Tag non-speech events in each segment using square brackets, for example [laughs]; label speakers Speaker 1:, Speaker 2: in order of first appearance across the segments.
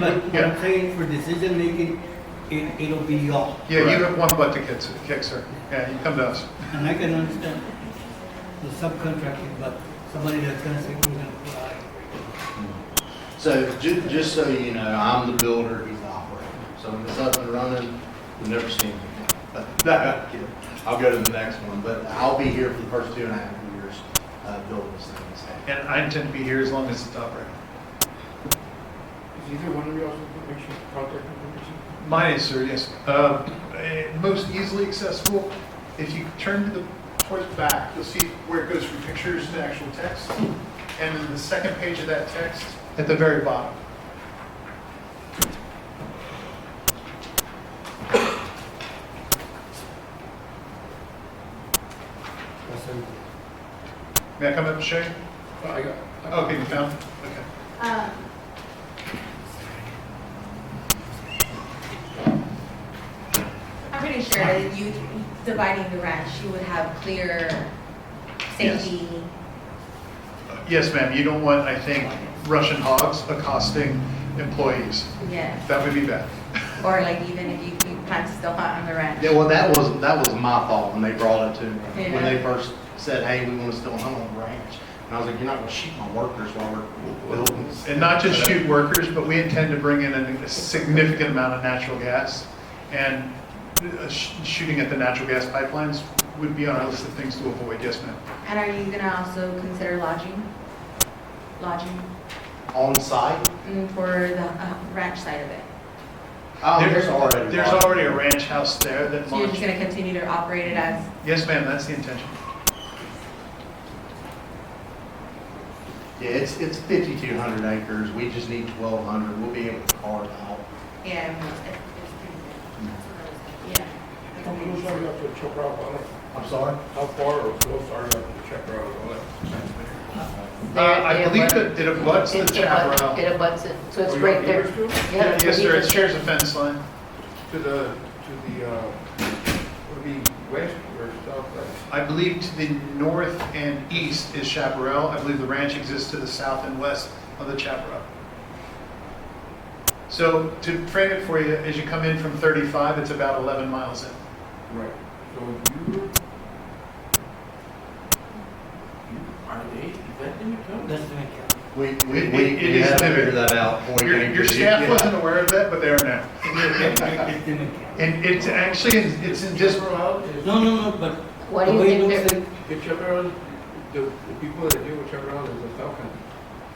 Speaker 1: But what
Speaker 2: Yeah.
Speaker 1: I'm saying for decision making, it, it'll be y'all,
Speaker 2: Yeah, you have one butt to kick, kick, sir. Yeah, you come to us.
Speaker 1: and I can understand the subcontracting, but somebody that's gonna say, we're gonna fly.
Speaker 3: So ju- just so you know, I'm the builder, he's the operator. So when it's up and running, you'll never see me. But no, [laughs] I'm kidding. I'll go to the next one, but I'll be here for the first two and a half years, uh, building this thing.
Speaker 2: And I intend to be here as long as it's operating.
Speaker 4: Is either one of you also make sure contact information?
Speaker 2: Mine is, sir, yes. Uh, eh, Most easily accessible, if you turn to the, towards the back, you'll see where it goes from pictures to actual text. And then the second page of that text, at the very bottom. May I come up and show you?
Speaker 4: I got.
Speaker 2: Okay, you found it? Uh-huh. Okay.
Speaker 5: Um, I'm pretty sure that you dividing the ranch, you would have clear
Speaker 2: Yes.
Speaker 5: safety.
Speaker 2: Yes, ma'am, you don't want, I think, Russian hogs accosting employees.
Speaker 5: Yes.
Speaker 2: That would be bad.
Speaker 5: Or like even if you, you plan to still hunt on the ranch.
Speaker 3: Yeah, well, that was, that was my fault when they brought it to me. When
Speaker 5: Yeah.
Speaker 3: they first said, hey, we want to still hunt on the ranch. And I was like, you're not going to shoot my workers while we're building this.
Speaker 2: And not just shoot workers, but we intend to bring in a significant amount of natural gas. And uh, sh- shooting at the natural gas pipelines would be on our list of things to avoid, yes, ma'am.
Speaker 5: And are you gonna also consider lodging? Lodging
Speaker 3: On site?
Speaker 5: mm, for the uh, ranch side of it?
Speaker 3: Oh,
Speaker 2: There-
Speaker 3: there's already.
Speaker 2: There's
Speaker 3: one.
Speaker 2: already a ranch house there that
Speaker 5: So you're
Speaker 2: launched.
Speaker 5: just gonna continue to operate it as,
Speaker 2: Yes, ma'am, that's the intention.
Speaker 3: Yeah, it's, it's 5,200 acres. We just need 1,200. We'll be able to carve out
Speaker 5: yeah, it's, it's pretty good.
Speaker 4: How close
Speaker 5: Yeah.
Speaker 4: are "Oh, you up to the check route on it?
Speaker 3: I'm sorry?
Speaker 4: How far or close are you up to the check route on it?
Speaker 2: Uh, I believe that it abuts the
Speaker 6: It abuts-
Speaker 2: chaparral.
Speaker 6: It abuts it, so it's
Speaker 4: Are you
Speaker 6: right
Speaker 4: on
Speaker 6: there.
Speaker 4: Beaver Street?
Speaker 6: Yeah,
Speaker 2: Yes, sir, it
Speaker 6: Beaver Street.
Speaker 2: shares a fence line.
Speaker 4: To the, to the, uh, would it be west or southwest?
Speaker 2: I believe to the north and east is chaparral. I believe the ranch exists to the south and west of the chaparral. So to frame it for you, as you come in from 35, it's about 11 miles in.
Speaker 4: Right. So you. Are they, is that in your town?
Speaker 1: That's the way it goes.
Speaker 3: We, we,
Speaker 2: It-
Speaker 3: we
Speaker 2: it
Speaker 3: we
Speaker 2: is
Speaker 3: had to
Speaker 2: limited.
Speaker 3: figure that out. before we
Speaker 2: Your,
Speaker 3: came
Speaker 2: your
Speaker 3: to the-
Speaker 2: staff
Speaker 3: yeah.
Speaker 2: wasn't aware of that, but they are now. [laughs]
Speaker 1: That's the way it goes.
Speaker 2: And it's actually, it's in dis,
Speaker 4: route is.
Speaker 1: No, no, no, but
Speaker 6: What
Speaker 1: the
Speaker 6: do you
Speaker 1: way it
Speaker 6: think
Speaker 1: looks
Speaker 6: they're,
Speaker 1: like,
Speaker 4: The check route, the, the people that deal with check route is the South County.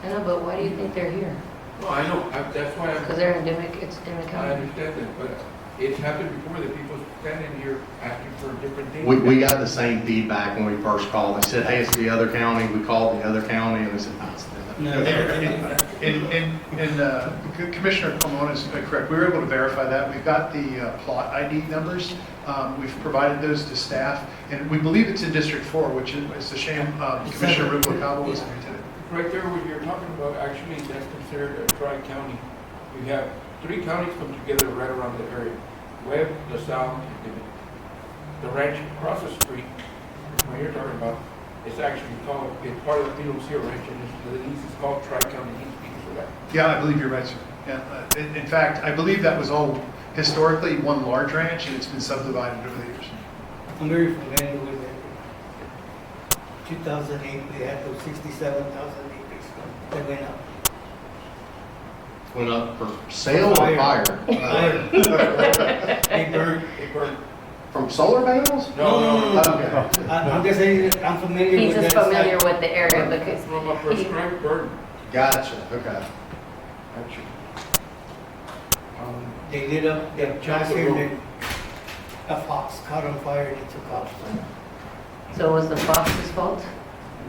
Speaker 6: I know, but why do you think they're here?
Speaker 4: No, Oh, I know, I, that's why I'm.
Speaker 6: Because they're endemic, it's endemic
Speaker 4: I
Speaker 6: county.
Speaker 4: understand that, but it's happened before that people standing here asking for different things.
Speaker 3: We, we got the same feedback when we first called. They said, hey, it's the other county. We called the other county and they said, no, it's them.
Speaker 1: no,
Speaker 2: and, and, and uh, Commissioner Pomona is correct. We were able to verify that. We've got the uh, plot ID numbers. Um, We've provided those to staff. And we believe it's in District 4, which is, it's a shame um, Commissioner Rubalcaba wasn't here today.
Speaker 4: Right there, what you're talking about, actually, that's considered a tri-county. You have three counties come together right around the area. Webb, LaSalle, and Dimmitt. The ranch across the street, what you're talking about, it's actually called, it's part of the PLC ranch, and it's, the lease is called tri-county lease because of that.
Speaker 2: Yeah, I believe you're right, sir. Yeah, uh, In in fact, I believe that was all historically one large ranch, and it's been subdivided over the years.
Speaker 1: I'm very familiar with it. Two thousand eight, they had those sixty-seven thousand acres that went up.
Speaker 3: Went up for sale or
Speaker 1: Fire.
Speaker 3: fire?
Speaker 1: They burned.
Speaker 4: It burned.
Speaker 3: From solar panels?
Speaker 4: No, no, no,
Speaker 1: [laughs]
Speaker 4: no.
Speaker 3: Okay.
Speaker 1: I- I'm just saying, that I'm familiar
Speaker 6: He's
Speaker 1: with that.
Speaker 6: just
Speaker 1: site.
Speaker 6: familiar with the area because
Speaker 4: From a prescribed burden,
Speaker 3: Gotcha, okay.
Speaker 4: actually. Um,
Speaker 1: They lit up, they
Speaker 4: Chapel
Speaker 1: tried to,
Speaker 4: Road.
Speaker 1: and a fox caught on fire and it took off.
Speaker 6: so it was the fox's fault?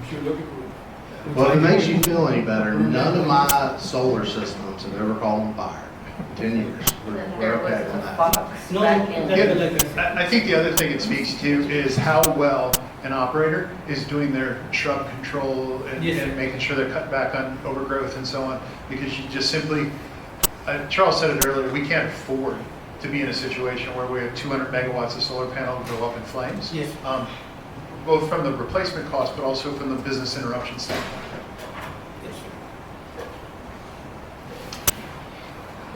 Speaker 4: If you're looking for,
Speaker 3: Well, if it makes you feel any better,
Speaker 1: Mm-hmm.
Speaker 3: none of my solar systems have ever caught on fire. in Ten years. We're
Speaker 6: And
Speaker 3: we're
Speaker 6: There was
Speaker 3: okay on
Speaker 6: a
Speaker 3: that.
Speaker 6: fox
Speaker 1: No,
Speaker 6: back
Speaker 1: that's
Speaker 6: in.
Speaker 1: what I said.
Speaker 2: I I think the other thing it speaks to is how well an operator is doing their shrub control and
Speaker 1: Yes, sir.
Speaker 2: and making sure they're cut back on overgrowth and so on, because you just simply, uh, Charles said it earlier, we can't afford to be in a situation where we have 200 megawatts of solar panel go up in flames.
Speaker 1: Yes.
Speaker 2: Um, Both from the replacement cost, but also from the business interruption standpoint.